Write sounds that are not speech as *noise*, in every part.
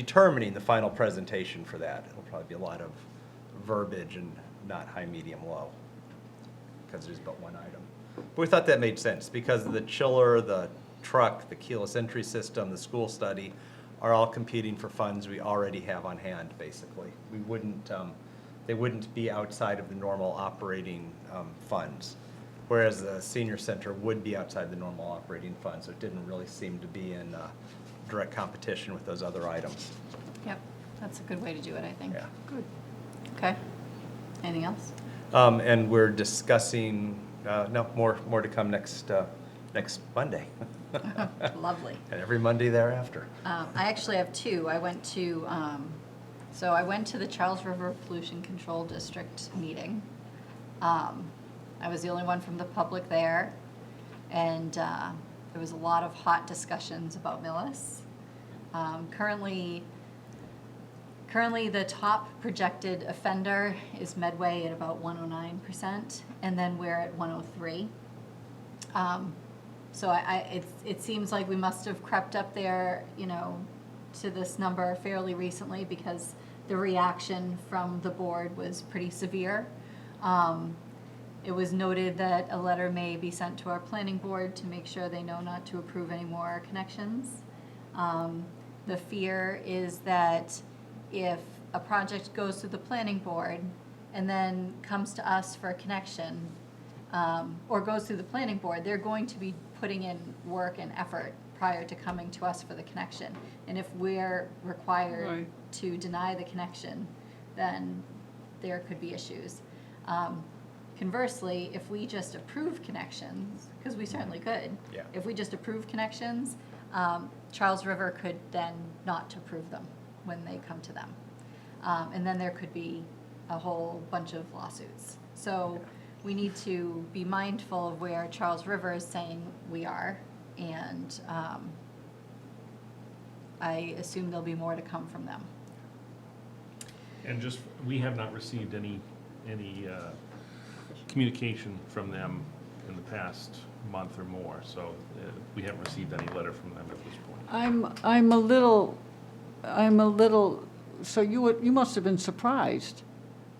determining the final presentation for that. It'll probably be a lot of verbiage and not high, medium, low, because there's but one item. But we thought that made sense, because the chiller, the truck, the keyless entry system, the school study are all competing for funds we already have on hand, basically. We wouldn't, um, they wouldn't be outside of the normal operating um, funds, whereas the senior center would be outside the normal operating funds, so it didn't really seem to be in uh, direct competition with those other items. Yep, that's a good way to do it, I think. Yeah. Good. Okay. Anything else? Um, And we're discussing, uh, no, more, more to come next, uh, next Monday, *laughs* Lovely. and every Monday thereafter. Um, I actually have two. I went to, um, so I went to the Charles River Pollution Control District meeting. Um, I was the only one from the public there, and uh, there was a lot of hot discussions about Millis. Um, Currently, Currently, the top projected offender is Medway at about 109%, and then we're at 103. Um, So I, I, it, it seems like we must have crept up there, you know, to this number fairly recently because the reaction from the board was pretty severe. Um, It was noted that a letter may be sent to our planning board to make sure they know not to approve any more connections. Um, The fear is that if a project goes to the planning board and then comes to us for a connection, um, or goes through the planning board, they're going to be putting in work and effort prior to coming to us for the connection. And if we're required Right. to deny the connection, then there could be issues. Um, Conversely, if we just approve connections, because we certainly could. Yeah. If we just approve connections, um, Charles River could then not approve them when they come to them. Um, and then there could be a whole bunch of lawsuits. So we need to be mindful of where Charles River is saying we are. And, um, I assume there'll be more to come from them. And just, we have not received any, any uh, communication from them in the past month or more, so uh, we haven't received any letter from them at this point. I'm, I'm a little, I'm a little, so you were, you must have been surprised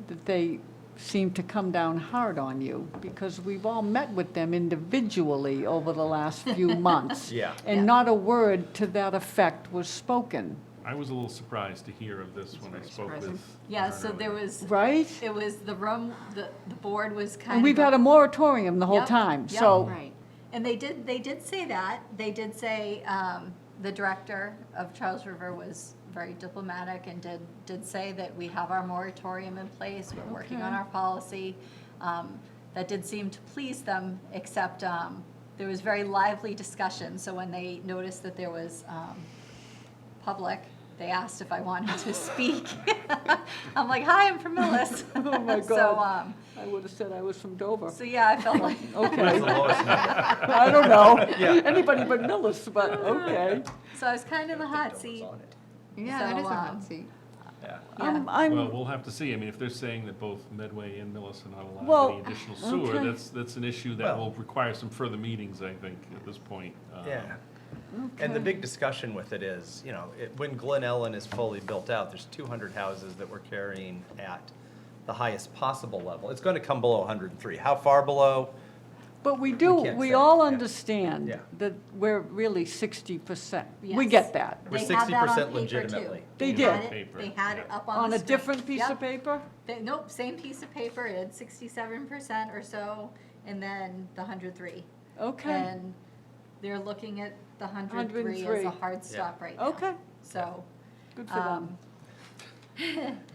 that they seemed to come down hard on you, because we've all met with them individually over the last *laughs* few months. Yeah. Yeah. And not a word to that effect was spoken, I was a little surprised to hear of this when I spoke with. Yeah, Aaron so there earlier. was, right? it was the room, the, the board was kind of. And we've had a moratorium the whole Yep, time, yep. so, Right. And they did, they did say that. They did say, um, the director of Charles River was very diplomatic and did, did say that we have our moratorium in place, we're working on Okay. our policy. Um, That did seem to please them, except, um, there was very lively discussion, so when they noticed that there was, um, public, they asked if I wanted to speak. *laughs* I'm like, hi, I'm from Millis. *laughs* Oh, *laughs* my So, God. um, I would have said I was *laughs* from Dover. so, yeah, I felt like. That's the *laughs* Okay, lowest number. I don't know, Yeah. anybody but Millis, *laughs* but, okay. So I was kind of in the I hot don't think seat. Dover's on it. Yeah, that So, is a um, hot seat. Yeah. I'm, Yeah. I'm. Well, we'll have to see. I mean, if they're saying that both Medway and Millis are not Well, allowed any additional sewer, okay. that's, that's an issue that Well- will require some further meetings, I think, at this point. Um, Yeah. And the big discussion with it is, you know, it, when Glen Ellen is fully built out, there's two hundred houses that we're carrying at the highest possible level. It's gonna come below hundred and three. How far below? But we do, can't say, we all yeah. understand Yeah. that we're really sixty percent. We Yes. get that. We're They had 60% that on paper, too. legitimately. They They had did. it- They had it Yeah. up on On the a screen. different piece of Yep. paper? They- Nope, same piece of paper, it had sixty-seven percent or so, and then the hundred three. Okay, And they're looking at the hundred three as 103. a hard stop right now. okay, So, good for them. um,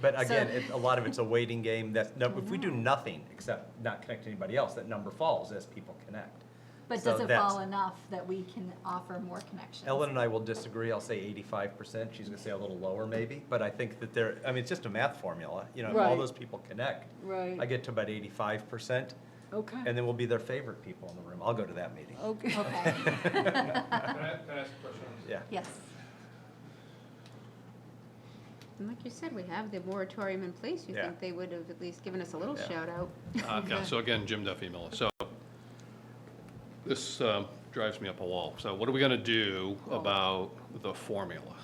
But So- again, it, a lot of it's a waiting game. That *laughs* no, if we do nothing except not connect anybody else, that number falls as people connect. but So does it that's- fall enough that we can offer more connections? Ellen and I will disagree. I'll say eighty-five percent. She's gonna say a little lower maybe, but I think that there, I mean, it's just a math formula. You know, if all Right. those people connect, I Right, get to about eighty-five percent, and okay, then we'll be their favorite people in the room. I'll go to that meeting. *laughs* okay. Okay, Can I, can I ask a question? on this? Yeah. yes, And like you said, we have the moratorium in place. You Yeah. think they would have at least given us a little Yeah. shout out. Uh, Yeah, so again, Jim Duffy Miller. So this um, drives me up a wall. So what are we going to do about the formula?